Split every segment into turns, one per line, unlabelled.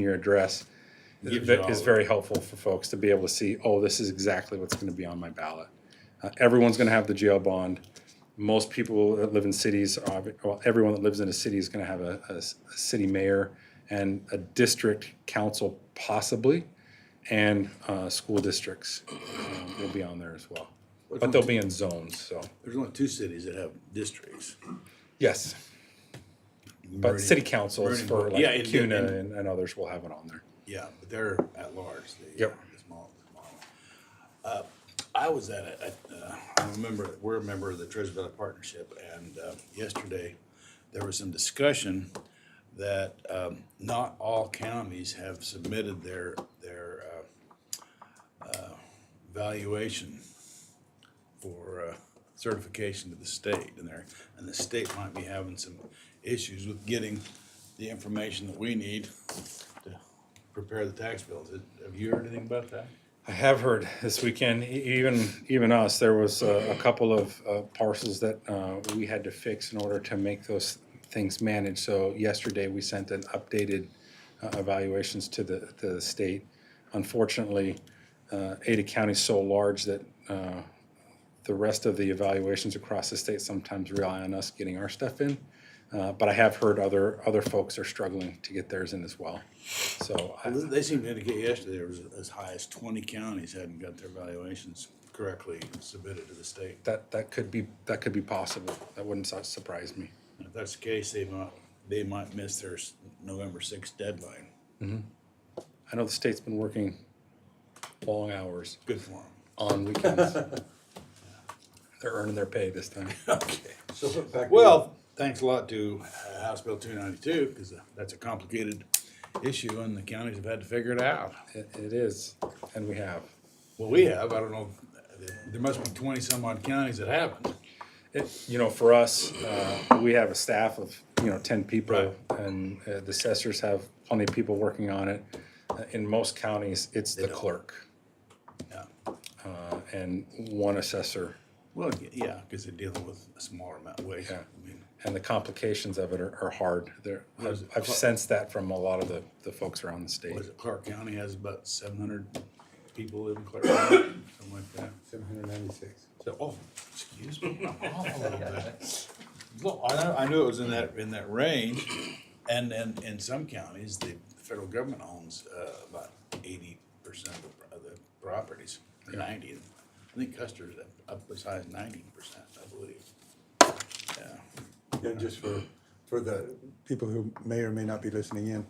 your address
Yeah,
is ve-
it's
is
all-
very helpful for folks to be able to see, oh, this is exactly what's gonna be on my ballot. Uh, Everyone's gonna have the jail bond. Most people that live in cities, are- well, everyone that lives in a city is gonna have a, a s- a city mayor and a district council possibly, and, uh, school districts um, will be on there as well. But they'll be in zones, so,
There's only two cities that have districts.
yes. But city councils
Vernon-
for
yeah,
like
and-
CUNA
and-
and, and others will have it on there.
Yeah, but they're at large. They,
Yep.
the Small, the small. Uh, I was at a, a, uh, I remember, we're a member of the Treasure Valley Partnership, and, uh, yesterday, there was some discussion that, um, not all counties have submitted their, their, uh, uh, valuation for, uh, certification to the state, and there, and the state might be having some issues with getting the information that we need to prepare the tax bills. Have you heard anything about that?
I have heard this weekend, e- even, even us, there was a, a couple of uh, parcels that uh, we had to fix in order to make those things managed. So yesterday, we sent an updated uh, evaluations to the, to the state. Unfortunately, uh, Ada County's so large that uh, the rest of the evaluations across the state sometimes rely on us getting our stuff in. Uh, But I have heard other, other folks are struggling to get theirs in as well. So I-
They seemed to indicate yesterday there was as high as twenty counties hadn't got their valuations correctly submitted to the state.
that, that could be, that could be possible. That wouldn't su- surprise me.
If that's the case, they might, they might miss their s- November sixth deadline.
I know the state's been working long hours
Good for them.
on weekends. They're earning their pay this time.
Okay.
So put back. to-
Well, thanks a lot to uh, House Bill two ninety-two, because that's a complicated issue and the counties have had to figure it out.
It, it is, and we have.
Well, we have, I don't know, there must be twenty some odd counties that haven't.
It, you know, for us, uh, we have a staff of, you know, ten people,
Right.
and uh, the assessors have plenty of people working on it. Uh, In most counties, it's the
don't.
clerk
Yeah.
uh, and one assessor,
Well, y- yeah, because they're dealing with a smaller amount of waste.
Yeah.
I mean,
and the complications of it are, are hard. There,
Was
I've,
it
I've
clerk?
sensed that from a lot of the, the folks around the state.
what is it, Clark County has about seven hundred people live in Clark County, something like that.
Seven hundred ninety-six.
So, oh, excuse me, I'm off a little bit. Well, I, know- I knew it was in that, in that range, and then in some counties, the federal government owns, uh, about eighty percent of the, of the properties, ninety. I think Custer's up, up as high as ninety percent, I believe. Yeah.
Yeah, just for, for the people who may or may not be listening in.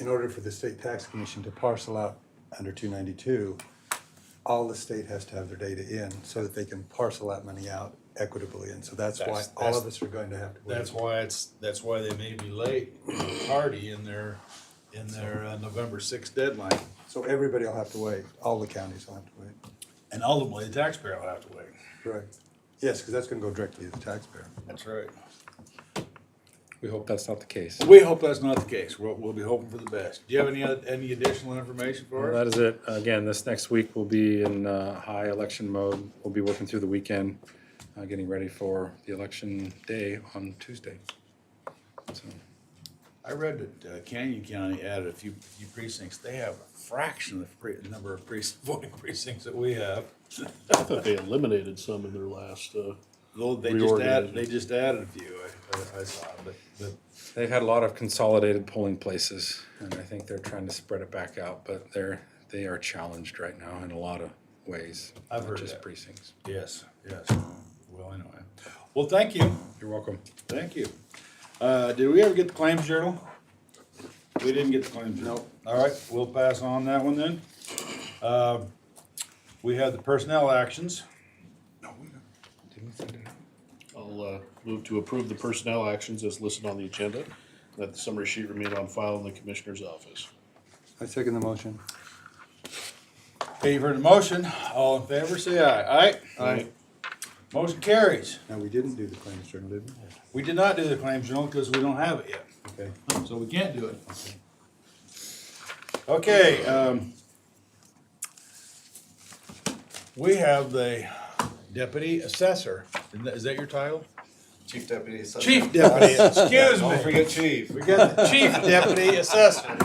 In order for the state tax commission to parcel out under two ninety-two, all the state has to have their data in so that they can parcel that money out equitably. And so that's why
That's-
all
that's-
of us are going to have to. wait.
That's why it's, that's why they may be late, tardy in their, in their uh, November sixth deadline.
So everybody will have to wait. All the counties will have to wait.
And ultimately, the taxpayer will have to wait.
Correct. Yes, because that's going to go directly to the taxpayer.
That's right.
We hope that's not the case.
We hope that's not the case. We'll, we'll be hoping for the best. Do you have any, oth- any additional information for
Well,
us?
that is it. Again, this next week will be in uh, high election mode. We'll be working through the weekend, uh, getting ready for the election day on Tuesday. So,
I read that uh, Canyon County added a few, few precincts. They have a fraction of the pre- number of precincts, voting precincts that we have.
I thought they eliminated some in their last, uh,
Though they just added,
Reorganizing.
they just added a few, I, I- I saw, but, but
They've had a lot of consolidated polling places, and I think they're trying to spread it back out, but they're, they are challenged right now in a lot of ways.
I've
not
heard
Just
that.
precincts.
yes, yes. Well, anyway. Well, thank you.
You're welcome.
Thank you. Uh, did we ever get the claims journal? We didn't get the claims journal. All right, we'll pass on that one then. Uh, We have the personnel actions.
Didn't we send it out?
I'll, uh, move to approve the personnel actions as listed on the agenda. That the summary sheet remain on file in the commissioner's office.
I second the motion.
Okay, you've heard the motion. All in favor, say aye. Aye?
Aye.
Motion carries.
Now, we didn't do the claims journal, did we?
We did not do the claims journal because we don't have it yet,
Okay.
so we can't do it. Okay, um, we have the deputy assessor. Is that- Is that your title?
Chief Deputy Assessor.
Chief Deputy, excuse
Don't
me.
forget Chief.
We got the Chief Deputy Assessor.